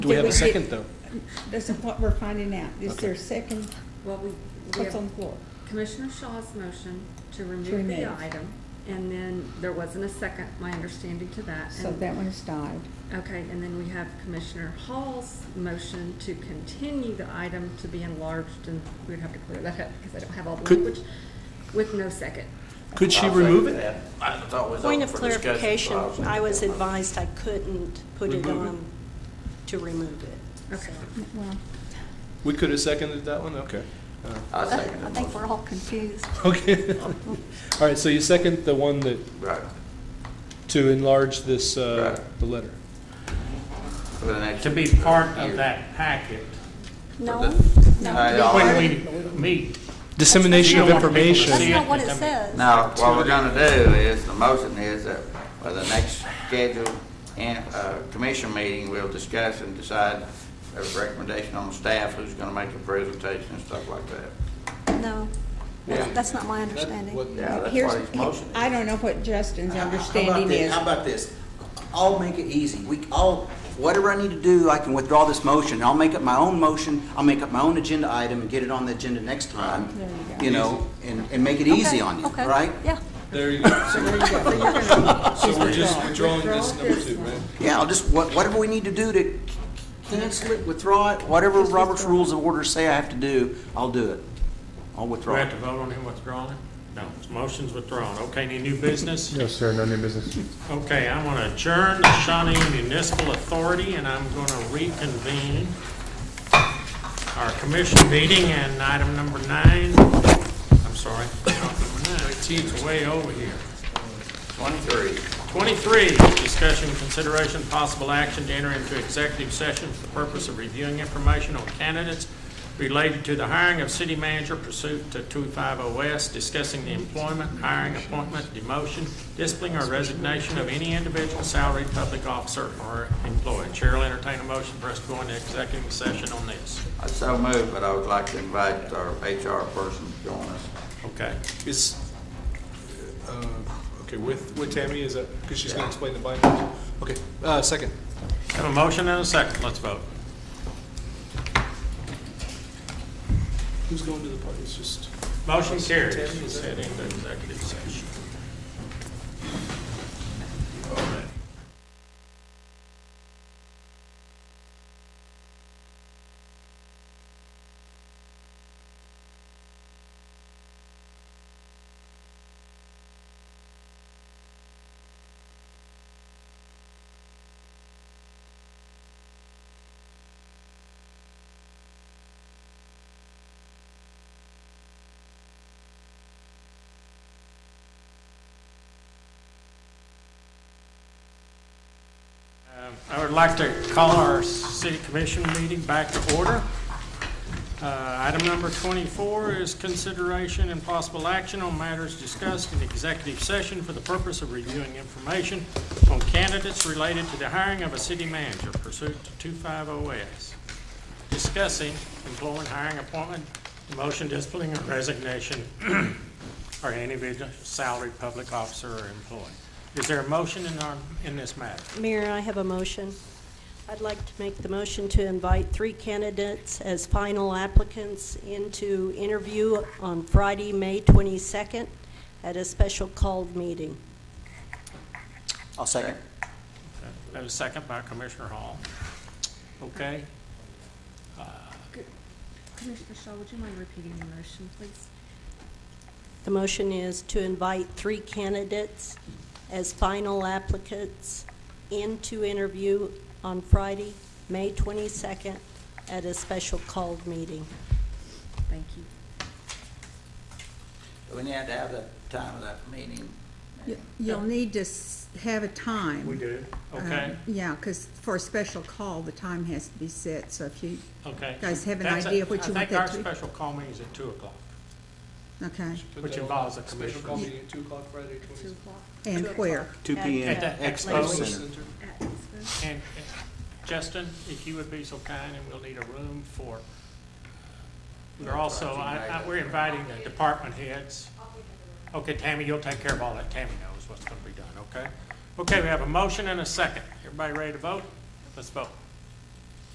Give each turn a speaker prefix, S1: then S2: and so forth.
S1: Do we have
S2: Did
S1: a
S2: we-
S1: second, though?
S2: That's what we're finding out. Is
S1: Okay.
S2: there a second?
S3: Well, we, we
S2: What's on
S3: have
S2: the floor?
S3: Commissioner Shaw's motion to remove
S2: remove.
S3: the item, and then there wasn't a second, my understanding to that.
S2: So
S3: and-
S2: that one's died.
S3: Okay, and then we have Commissioner Hall's motion to continue the item to be enlarged, and we'd have to clear that up because I don't have all the
S1: Could-
S3: language, with no second.
S1: Could she
S4: I'll second
S1: remove it?
S4: that. I thought it was
S5: Point
S4: open
S5: of
S4: for discussion,
S5: clarification,
S4: so I'll second
S5: I was
S4: that motion.
S5: advised I couldn't put it
S1: Remove it.
S5: on to remove it.
S3: Okay.
S5: so.
S2: Well,
S1: We could have seconded that one, okay. Uh,
S4: I'll
S5: I
S4: second that
S5: think
S4: motion.
S5: we're all confused.
S1: Okay. All right, so you second the one that,
S4: Right,
S1: to enlarge this, uh,
S4: Right.
S1: the letter?
S4: for the next.
S6: to be part
S4: year.
S6: of that packet
S5: No, no.
S4: For the- I
S5: that's
S4: don't-
S6: when we meet.
S1: Dissemination of
S6: You don't want people to
S1: information.
S6: see it.
S5: not what it says.
S4: Now, what we're gonna do is, the motion is that for the next scheduled, in- uh, commission meeting, we'll discuss and decide a recommendation on staff, who's gonna make the presentation and stuff like that.
S5: No, that's that's not my understanding.
S4: Yeah, that's
S2: here's-
S4: what his motion is.
S2: I don't know what Justin's
S7: How about
S2: understanding
S7: this?
S2: is.
S7: How about this? I'll make it easy. We, I'll, whatever I need to do, I can withdraw this motion. I'll make up my own motion, I'll make up my own agenda item and get it on the agenda next time,
S2: There you go.
S7: you know, and, and make it easy on you,
S5: Okay,
S7: right?
S5: Yeah,
S1: There you go. So we're just withdrawing this
S3: Withdraw
S1: number
S3: this
S1: two,
S3: one.
S1: right?
S7: Yeah, I'll just, wha- whatever we need to do to cancel it, withdraw it, whatever Robert's Rules of Order say I have to do, I'll do it. I'll
S6: Do we
S7: withdraw
S6: have
S7: it.
S6: to vote on him withdrawing? No, his motion's withdrawn. Okay, any new business?
S8: No, sir, no new business.
S6: Okay, I want to adjourn the Shawnee Municipal Authority, and I'm going to reconvene our commission meeting and item number nine, I'm sorry, not number nine, it's way over here.
S4: Twenty-three.
S6: 23, discussion, consideration, possible action to enter into executive session for the purpose of reviewing information on candidates related to the hiring of city manager pursuant to 250S, discussing the employment, hiring, appointment, demotion, discipline, or resignation of any individual salaried public officer or employee. Chair will entertain a motion for us to go into executive session on this.
S4: I so moved, but I would like to invite our HR person to join us.
S6: Okay.
S1: Is, uh, okay, with, with Tammy, is that, because she's going to explain the binders? Okay, uh, second.
S6: Have a motion and a second. Let's vote.
S1: Who's going to the party? It's just,
S6: Motion carries.
S1: Tim, is
S6: Set into executive session. Um, I would like to call our city commission meeting back to order. Uh, Item number 24 is consideration and possible action on matters discussed in executive session for the purpose of reviewing information on candidates related to the hiring of a city manager pursuant to 250S, discussing employment, hiring, appointment, demotion, disciplining, or resignation or any individual salaried public officer or employee. Is there a motion in our, in this matter?
S5: Mayor, I have a motion. I'd like to make the motion to invite three candidates as final applicants into interview on Friday, May 22nd, at a special called meeting.
S7: I'll second.
S6: That was second by Commissioner Hall. Okay,
S3: Commissioner Shaw, would you mind repeating the motion, please?
S5: The motion is to invite three candidates as final applicants into interview on Friday, May 22nd, at a special called meeting.
S3: Thank you.
S4: Do we need to have the time of that meeting?
S2: You- You'll need to s- have a time.
S6: we do, okay,
S2: Um, Yeah, because for a special call, the time has to be set, so if you,
S6: okay.
S2: guys have an
S6: That's a-
S2: idea what you want that
S6: I
S2: to
S6: think
S2: be?
S6: our special call meeting is at two o'clock.
S2: okay,
S6: Which involves a
S1: Special
S6: commission.
S1: call meeting at two o'clock Friday,
S3: Two
S1: twenty.
S3: o'clock
S2: and where?
S7: Two P M,
S6: At the
S7: Expo
S6: Expo.
S7: Center.
S3: at this.
S6: And uh, Justin, if you would be so kind, and we'll need a room for, we're also, I, I, we're inviting the department heads. Okay, Tammy, you'll take care of all that. Tammy knows what's gonna be done, okay? Okay, we have a motion and a second. Everybody ready to vote? Let's vote.